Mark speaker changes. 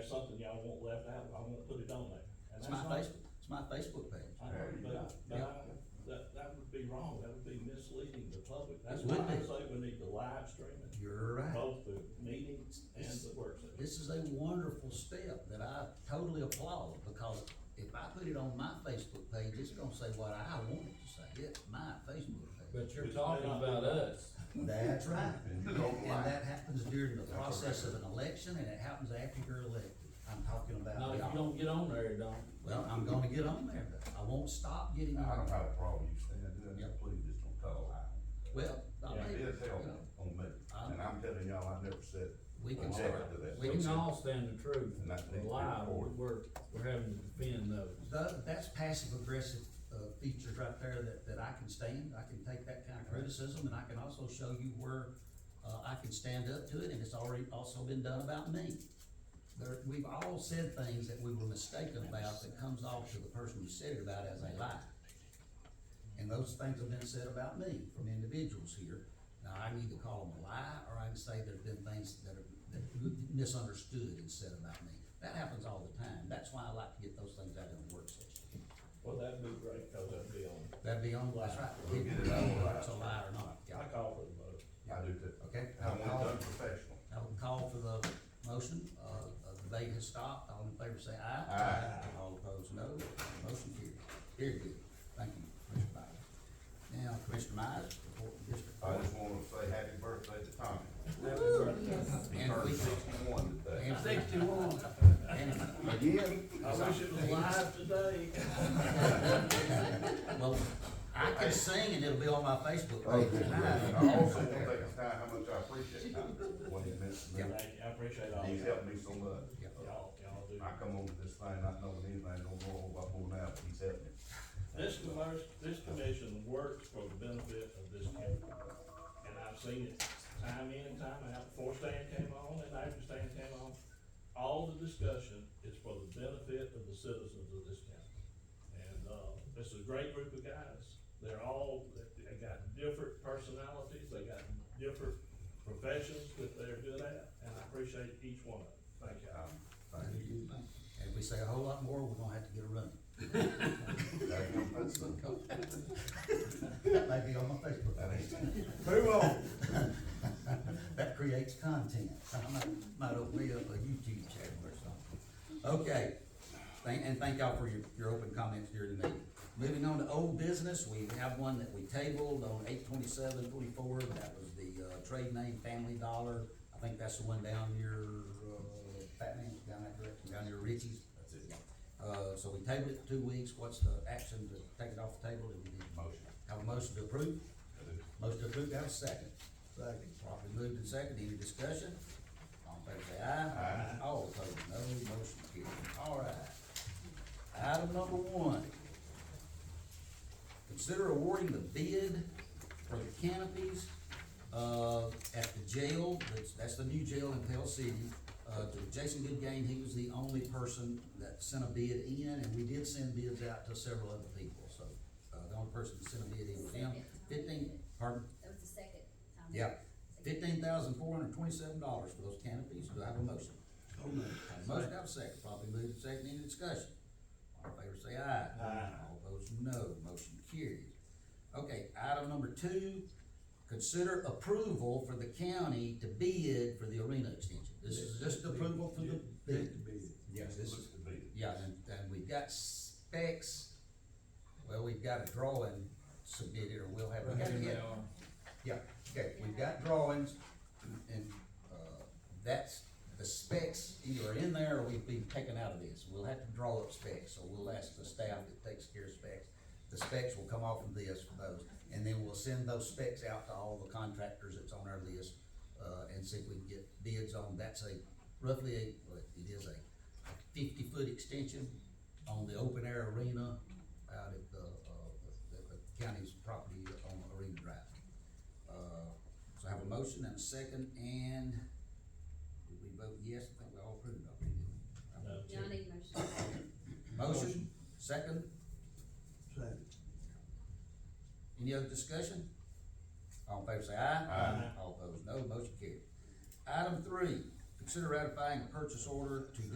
Speaker 1: something y'all won't let out, I won't put it on there. And that's
Speaker 2: It's my
Speaker 1: not-
Speaker 2: Facebook, it's my Facebook page.
Speaker 1: I know, but, but I, that, that would be wrong, that would be misleading the public, that's
Speaker 2: It would
Speaker 1: why I
Speaker 2: be.
Speaker 1: say we need to live stream it,
Speaker 2: You're right.
Speaker 1: both the meetings and the work session.
Speaker 2: This is a wonderful step that I totally applaud, because if I put it on my Facebook page, it's gonna say what I want it to say. It's my Facebook page.
Speaker 3: But you're
Speaker 1: Which may
Speaker 3: talking
Speaker 1: not
Speaker 3: about
Speaker 1: be-
Speaker 3: us.
Speaker 2: That's right. And
Speaker 4: And you don't like
Speaker 2: that happens during the
Speaker 4: That's
Speaker 2: process
Speaker 4: okay.
Speaker 2: of an election, and it happens after you're elected. I'm talking
Speaker 3: Not
Speaker 2: about
Speaker 3: if you
Speaker 2: y'all.
Speaker 3: don't get on there, it don't.
Speaker 2: Well, I'm gonna get on there, but I won't stop getting on
Speaker 4: I don't
Speaker 2: there.
Speaker 4: have a problem you saying that,
Speaker 2: Yeah.
Speaker 4: please just don't call out.
Speaker 2: Well, I
Speaker 1: Yeah,
Speaker 4: It
Speaker 2: mean,
Speaker 4: is hell
Speaker 2: you know,
Speaker 4: on me, and I'm telling y'all, I never said,
Speaker 2: we can
Speaker 4: Object
Speaker 2: start.
Speaker 4: to that.
Speaker 2: we can
Speaker 3: We can
Speaker 2: start.
Speaker 3: all stand the truth,
Speaker 4: And that needs to be
Speaker 3: lie,
Speaker 4: recorded.
Speaker 3: we're, we're having to defend those.
Speaker 2: Tho- that's passive aggressive, uh, features right there that, that I can stand, I can take that kind of criticism, and I can also show you where, uh, I can stand up to it, and it's already also been done about me. There, we've all said things that we were mistaken about that comes off to the person who said it about as a lie. And those things have been said about me from individuals here. Now, I can either call them a lie, or I can say there's been things that are, that misunderstood and said about me. That happens all the time. That's why I like to get those things out in the work session.
Speaker 1: Well, that'd be great, cause that'd be on,
Speaker 2: That'd be on, that's right.
Speaker 4: We'll get it out.
Speaker 2: Whether it's a lie or not, yeah.
Speaker 1: I call for the vote.
Speaker 4: I do too.
Speaker 2: Okay.
Speaker 4: I want it done professional.
Speaker 2: I will call for the motion, uh, uh, the debate has stopped, all in favor say aye.
Speaker 4: Aye.
Speaker 2: All opposed, no, motion carries, very good, thank you, Commissioner Byer. Now, Commissioner Myers, report to district.
Speaker 4: I
Speaker 2: court.
Speaker 4: just wanna say happy birthday to Tommy.
Speaker 5: Yes.
Speaker 4: He
Speaker 2: And we-
Speaker 4: turned sixty-one today.
Speaker 2: And- And-
Speaker 4: Again?
Speaker 1: I wish it was live today.
Speaker 2: Well, I can sing and it'll be on my Facebook
Speaker 4: Oh,
Speaker 2: page
Speaker 4: good. And I
Speaker 2: tonight.
Speaker 4: also wanna take this time, how much I appreciate Tommy, what he meant to me.
Speaker 1: Thank you, I appreciate all
Speaker 4: He's
Speaker 1: y'all,
Speaker 4: helped me so much.
Speaker 2: Yeah.
Speaker 1: y'all, y'all do.
Speaker 4: I come over this thing, not knowing anything, don't know what I'm going out, he's helped me.
Speaker 1: This commerce, this commission works for the benefit of this county. And I've seen it time in and time out, before Stan came on and after Stan came on. All the discussion is for the benefit of the citizens of this county. And, uh, this is a great group of guys. They're all, they got different personalities, they got different professions that they're good at, and I appreciate each one of them. Thank y'all.
Speaker 4: Um, thank you.
Speaker 2: And if we say a whole lot more, we're gonna have to get a run.
Speaker 4: That ain't no fun.
Speaker 2: That may be on my Facebook
Speaker 4: That
Speaker 2: page.
Speaker 4: ain't- Move on.
Speaker 2: That creates content. I might, might open me up a YouTube channel or something. Okay, Thank- and thank y'all for your, your open comments during the meeting. Moving on to old business, we have one that we tabled on eight twenty-seven twenty-four, that was the, uh, trade name Family Dollar. I think that's the one down near, uh, Fat Man, down that direction, down near Richie's. That's it. Uh, so we tabled it two weeks, what's the action to take it off the table? Do we need-
Speaker 4: Motion.
Speaker 2: Have a motion to approve?
Speaker 4: I do.
Speaker 2: Motion approved, have a second. Second. Properly moved and second, any discussion? All in favor say aye. Aye. All opposed, no, motion carried. All right. Item number one. Consider awarding the bid for the canopies, uh, at the jail, that's, that's the new jail in Pell City. Uh, to Jason Goodgame, he was the only person that sent a bid in, and we did send bids out to several other people, so, uh, the only person that sent a bid in was him. Fifteen, pardon?
Speaker 5: That was the second um, time.
Speaker 2: Yeah, fifteen thousand four hundred twenty-seven dollars for those canopies, do I have a motion? So moved. Have a motion, have a second, probably moved to second, any discussion? All in favor say aye.
Speaker 1: Aye.
Speaker 2: All those no, motion carried. Okay, item number two, consider approval for the county to bid for the arena extension. This is just approval for the bid. Yes, this is,
Speaker 4: Looks to be.
Speaker 2: yeah, and, and we've got specs, well, we've got a drawing submitted, or we'll have, we gotta get, yeah, okay, we've got drawings, and, uh, that's, the specs either are in there or we've been taken out of this. We'll have to draw up specs, so we'll ask the staff that takes care of specs. The specs will come off of this for those, and then we'll send those specs out to all the contractors that's on our list, uh, and see if we can get bids on, that's a, roughly a, well, it is a fifty-foot extension on the open air arena out at the, uh, the, the county's property on Arena Drive. Uh, so I have a motion and a second, and did we vote yes? I think we all approved of it,
Speaker 1: No.
Speaker 2: didn't
Speaker 5: Johnny motion.
Speaker 2: we? Motion, second? Second. Any other discussion? All in favor say aye.
Speaker 4: Aye.
Speaker 2: All opposed, no. Motion carried. Item three, consider ratifying a purchase order to